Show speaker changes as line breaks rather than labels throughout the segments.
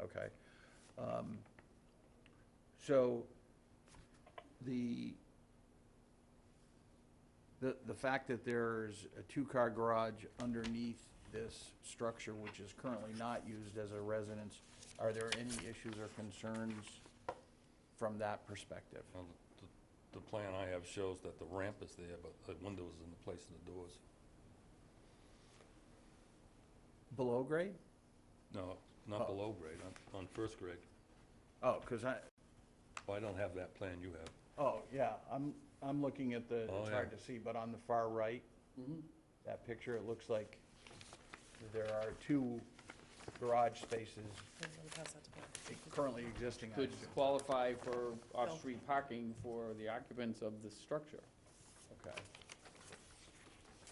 okay. Um, So, the, the, the fact that there's a two-car garage underneath this structure, which is currently not used as a residence, are there any issues or concerns from that perspective?
Well, the- The plan I have shows that the ramp is there, but the windows in the place of the doors.
Below grade?
No,
Oh.
not below grade, on- on first grade.
Oh, because I,
Well, I don't have that plan you have.
oh, yeah, I'm, I'm looking at the,
Oh,
it's
yeah.
hard to see, but on the far right,
Mm-hmm.
that picture, it looks like there are two garage spaces currently existing. I
Could
assume.
qualify for off-street parking for the occupants of the structure.
Okay.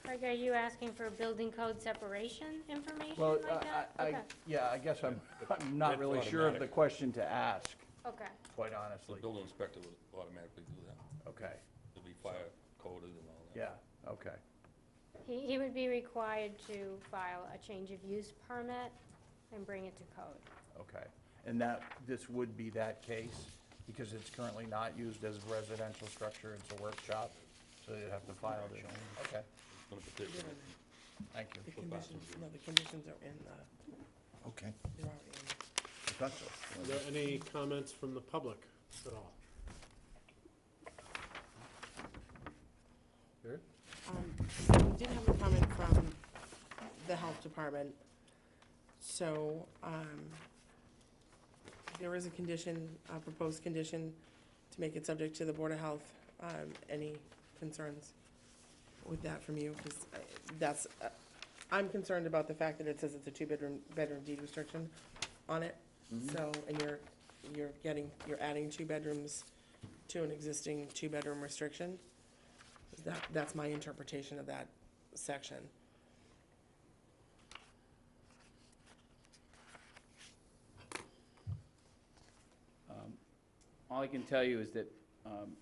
Like, are you asking for building code separation information
Well,
like that?
I- I, I, yeah, I guess I'm, I'm not
It's
really sure of the
automatic.
question to ask,
Okay, okay.
quite
The
honestly.
building inspector would automatically do that.
Okay,
It'd be fire coded and all that.
yeah, okay,
He, he would be required to file a change of use permit and bring it to code.
okay. And that, this would be that case, because it's currently not used as a residential structure, it's a workshop, so you'd have to file it. Okay,
On a particular-
thank
The
you.
conditions, no, the conditions are in the,
Okay.
they're already in.
Are there any comments from the public at all?
Um, so we did have a comment from the health department. So, um, there is a condition, a proposed condition to make it subject to the Board of Health. Um, any concerns with that from you? Because that's, uh, I'm concerned about the fact that it says it's a two-bedroom, bedroom deed restriction on it. So, and you're, you're getting, you're adding two bedrooms to an existing two-bedroom restriction. That, that's my interpretation of that section.
All I can tell you is that um,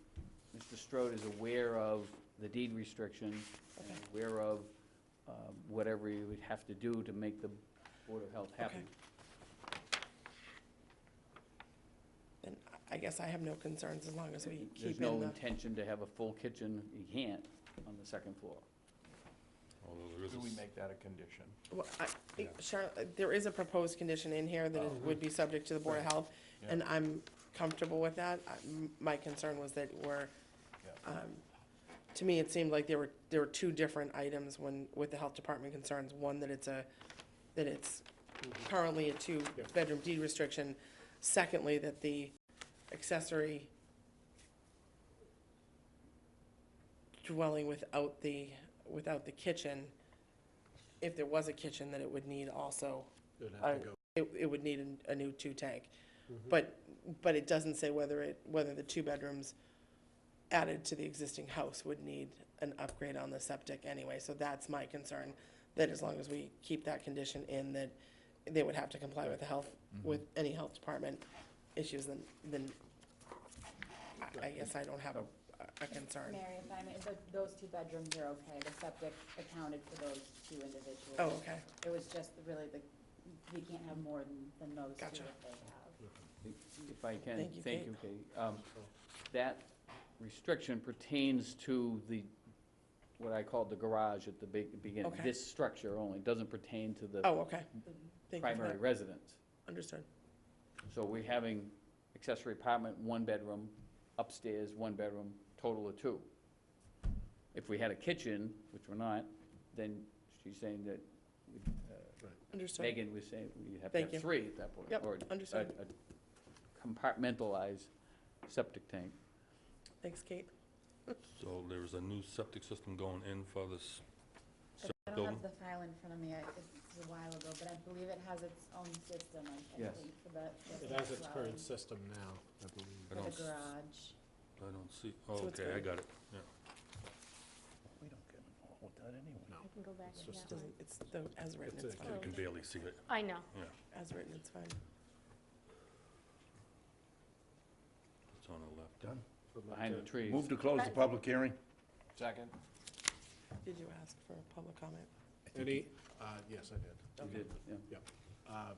Mr. Strode is aware of the deed restriction, and
Okay.
aware of um, whatever you would have to do to make the Board of Health happy.
Okay. Then I guess I have no concerns as long as we
There's
keep
no
in the,
intention to have a full kitchen, you can't, on the second floor.
Although there is a
Do we
s-
make that a condition?
Well, I- Char- there is a proposed condition in here that it would be subject to the Board of Health, and I'm comfortable with that. I- m- My concern was that we're, um, to me, it seemed like there were, there were two different items when, with the Health Department concerns. One, that it's a, that it's currently a two-bedroom deed restriction. Secondly, that the accessory dwelling without the, without the kitchen, if there was a kitchen, that it would need also,
It would have to
I-
go-
it, it would need an- a new two-tank.
Mm-hmm.
But, but it doesn't say whether it, whether the two bedrooms added to the existing house would need an upgrade on the septic anyway, so that's my concern. That as long as we keep that condition in, that they would have to comply with the health,
Mm-hmm.
with any health department issues, then, then I- I guess I don't have a, a concern.
Mary, if I may, tho- those two bedrooms are okay, the septic accounted for those two individuals.
Oh, okay,
It was just really the, you can't have more than, than those two
Gotcha.
that they have.
If I can,
Thank you,
thank
Kate.
you, Kate. Um, That restriction pertains to the, what I called the garage at the big- beginning.
Okay.
This structure only, doesn't pertain to the
oh, okay. Thank you for
primary
that,
residence.
understood.
So we're having accessory apartment, one bedroom, upstairs, one bedroom, total of two. If we had a kitchen, which we're not, then she's saying that, uh,
Understood.
Megan Uh, was saying, we'd have to
Thank
have
you.
three at that point.
Yep,
or
understood.
a- a Compartmentalized septic tank.
Thanks, Kate.
So there is a new septic system going in for this
I don't
building?
have the file in front of me, I- this is a while ago, but I believe it has its own system, I I
Yes.
think, for the.
It has its current system
system.
now, I believe.
I
For the
don't, s-
garage.
I don't see, oh,
So it's
okay, I
good.
got it, yeah.
We don't get involved with that anyway.
I can go back to
just
that one.
Doesn't- It's, the as written,
It's
it's
a-
fine.
You can barely see it.
I know.
As written, it's fine.
It's on the left.
Would like
behind the
to-
trees.
Move to close the public hearing?
Second?
Did you ask for a public comment?
Any, uh, yes, I did.
You did, yeah.
Uh,